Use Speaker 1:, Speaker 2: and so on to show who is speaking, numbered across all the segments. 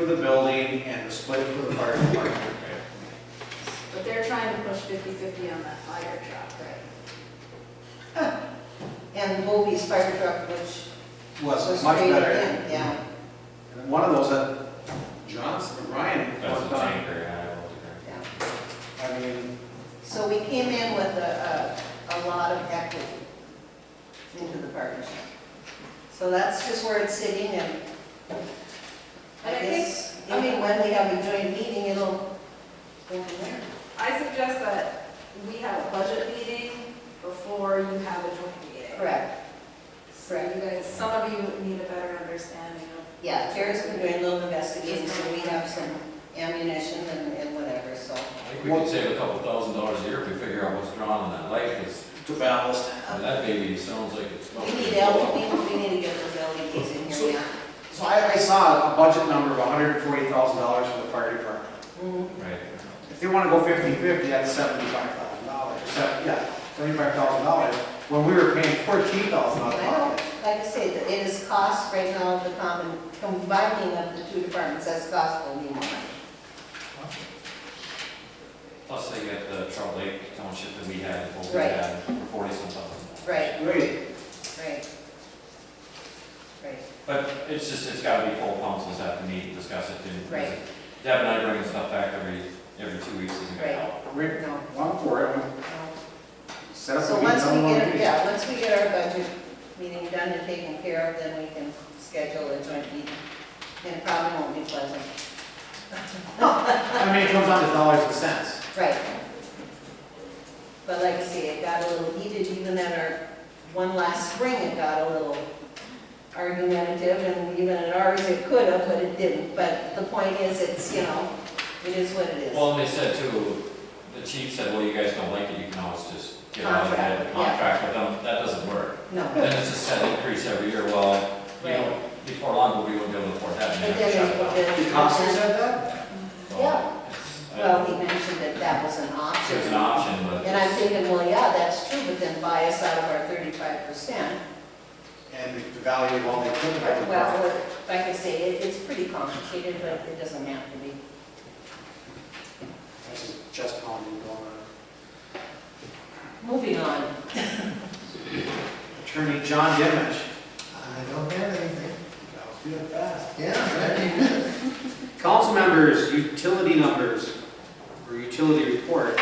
Speaker 1: the building and the split for the fire department.
Speaker 2: But they're trying to push 50/50 on that fire truck, right?
Speaker 3: And Bobby's fire truck, which
Speaker 1: Was
Speaker 3: was
Speaker 1: much
Speaker 3: traded
Speaker 1: better.
Speaker 3: in, yeah.
Speaker 1: And One of those that Johnson, Ryan
Speaker 4: That's a
Speaker 1: worked on.
Speaker 4: tanker, yeah, I wasn't there.
Speaker 3: yeah.
Speaker 1: I mean,
Speaker 3: So we came in with a, a, a lot of equity into the partnership. So that's just where it's sitting and I
Speaker 2: And I think,
Speaker 3: guess,
Speaker 2: I mean-
Speaker 3: even when we have a joint meeting, it'll go from there.
Speaker 2: I suggest that we have a budget meeting before you have a joint meeting.
Speaker 3: Correct,
Speaker 2: So you guys, some of you need a better understanding of,
Speaker 3: yeah, Terry's been doing a little investigating, so we have some ammunition and, and whatever, so.
Speaker 4: I think we could save a couple thousand dollars a year if we figure out what's drawn on that light, because
Speaker 1: to ballast.
Speaker 4: that baby sounds like it's
Speaker 3: We
Speaker 4: smoking.
Speaker 3: need LED, we need to get those LEDs in
Speaker 1: So-
Speaker 3: here now.
Speaker 1: So I, I saw a budget number of hundred and forty thousand dollars for the fire department.
Speaker 3: Mhm.
Speaker 4: Right.
Speaker 1: If they wanna go fifty-fifty, that's seventy-five thousand dollars, yeah, seventy-five thousand dollars, when we were paying fourteen thousand
Speaker 3: Well,
Speaker 1: dollars.
Speaker 3: Like I say, the- it is cost right now, the common, combining of the two departments, that's cost will be more money.
Speaker 4: Plus they got the Trout Lake Township that we had, what we
Speaker 3: Right.
Speaker 4: had, forty some thousand.
Speaker 3: Right,
Speaker 1: Wait,
Speaker 3: right. Right,
Speaker 4: But it's just, it's gotta be full councils have to meet and discuss it, and
Speaker 3: Right.
Speaker 4: Deb and I bring stuff back every, every two weeks, isn't
Speaker 3: Right.
Speaker 4: it?
Speaker 1: wait,
Speaker 3: no,
Speaker 1: one for it,
Speaker 3: no.
Speaker 1: we set up a
Speaker 3: So
Speaker 1: meeting.
Speaker 3: once we
Speaker 1: on one
Speaker 3: get,
Speaker 1: meeting.
Speaker 3: yeah, once we get our budget meeting done and taken care of, then we can schedule a joint meeting. And it probably won't be pleasant.
Speaker 1: I mean, it comes down to dollars and cents.
Speaker 3: Right. But like I say, it got a little heated even at our, one last spring, it got a little argumentative, and even at ours, it could have, but it didn't. But the point is, it's, you know, it is what it is.
Speaker 4: Well, and they said too, the chief said, well, you guys don't like it, you can always just get out of
Speaker 3: Contract, yeah.
Speaker 4: it, contract with them, that doesn't work.
Speaker 3: No,
Speaker 4: Then it's a set increase every year, well, you know, before long, we won't be able to afford that,
Speaker 3: but
Speaker 4: and then
Speaker 3: then
Speaker 4: shut it down.
Speaker 3: it-
Speaker 1: The council said that?
Speaker 4: So,
Speaker 3: Yeah.
Speaker 4: it's- I-
Speaker 3: Well, he mentioned that that was an option.
Speaker 4: It's an option, but.
Speaker 3: And I'm thinking, well, yeah, that's true, but then buy us out of our thirty-five percent.
Speaker 1: And the value of all the equipment. I think.
Speaker 3: Well, it- like I say, it, it's pretty complicated, but it doesn't have to be.
Speaker 1: This is just how you go on.
Speaker 3: Moving on.
Speaker 1: Attorney John Dimmich.
Speaker 5: I don't have anything.
Speaker 1: That was good, fast.
Speaker 5: Yeah, that'd be good.
Speaker 1: Council members, utility numbers, or utility report.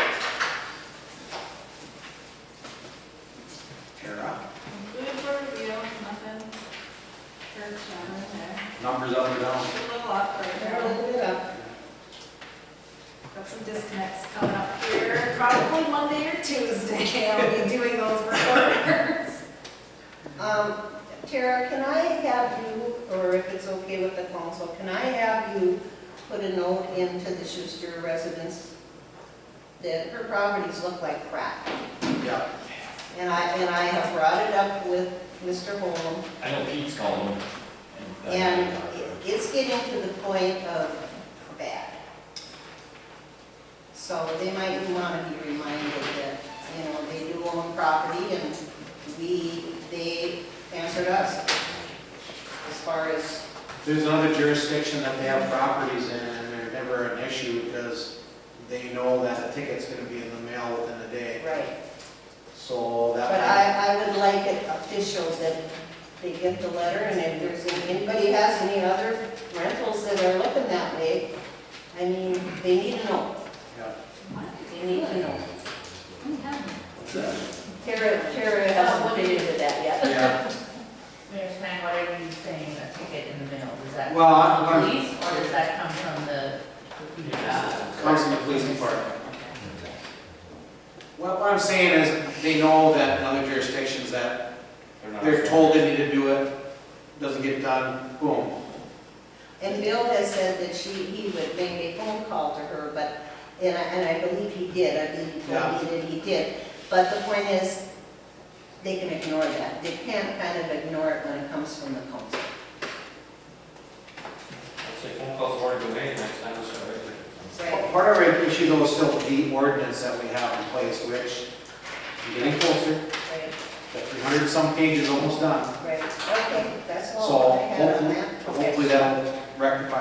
Speaker 1: Tara,
Speaker 2: good for review, nothing. Church, down in there.
Speaker 1: numbers up or down?
Speaker 2: Just a little up right
Speaker 3: Never
Speaker 2: there.
Speaker 3: looked it up.
Speaker 2: Got some disconnects coming up here, probably Monday or Tuesday, I'll be doing those reports.
Speaker 3: Um, Tara, can I have you, or if it's okay with the council, can I have you put a note into the Schuster residence that her properties look like crap?
Speaker 1: Yeah.
Speaker 3: And I, and I have brought it up with Mr. Holm,
Speaker 4: I know Pete's called them. that-
Speaker 3: And it- it's getting to the point of bad. So they might want to be reminded that, you know, they do own property and we, they answered us as far as,
Speaker 1: There's another jurisdiction that they have properties in, and they're never an issue because they know that a ticket's gonna be in the mail within a day,
Speaker 3: right.
Speaker 1: so that.
Speaker 3: But I, I would like it official that they get the letter and if there's, any- anybody has any other rentals that are looking that way, I mean, they need to know,
Speaker 1: Yeah.
Speaker 3: they need to know.
Speaker 1: What's that?
Speaker 3: Tara, Tara hasn't figured it out yet.
Speaker 1: Yeah,
Speaker 6: Mayor Snyder, whatever you're saying, that ticket in the middle, does that
Speaker 1: well,
Speaker 6: come
Speaker 1: I'm,
Speaker 6: from
Speaker 1: I'm-
Speaker 6: the police or does that come from the? uh,
Speaker 1: comes from the police department.
Speaker 6: okay.
Speaker 1: What what I'm saying is, they know that in other jurisdictions that
Speaker 4: not-
Speaker 1: they're told they need to do it, doesn't get done, boom.
Speaker 3: And Bill has said that she, he would make a phone call to her, but, and I, and I believe he did, I believe he told me that he did. But the point is, they can ignore that, they can't kind of ignore it when it comes from the council.
Speaker 4: I'd say phone calls already been made, next time it's already.
Speaker 3: Right.
Speaker 1: Part of our issue though is still the ordinance that we have in place, which, I'm getting closer,
Speaker 3: Right,
Speaker 1: that 300 some pages almost done.
Speaker 3: right, okay, that's
Speaker 1: So
Speaker 3: all I had on
Speaker 1: hopefully-
Speaker 3: that. Okay.
Speaker 1: Hopefully that'll rectify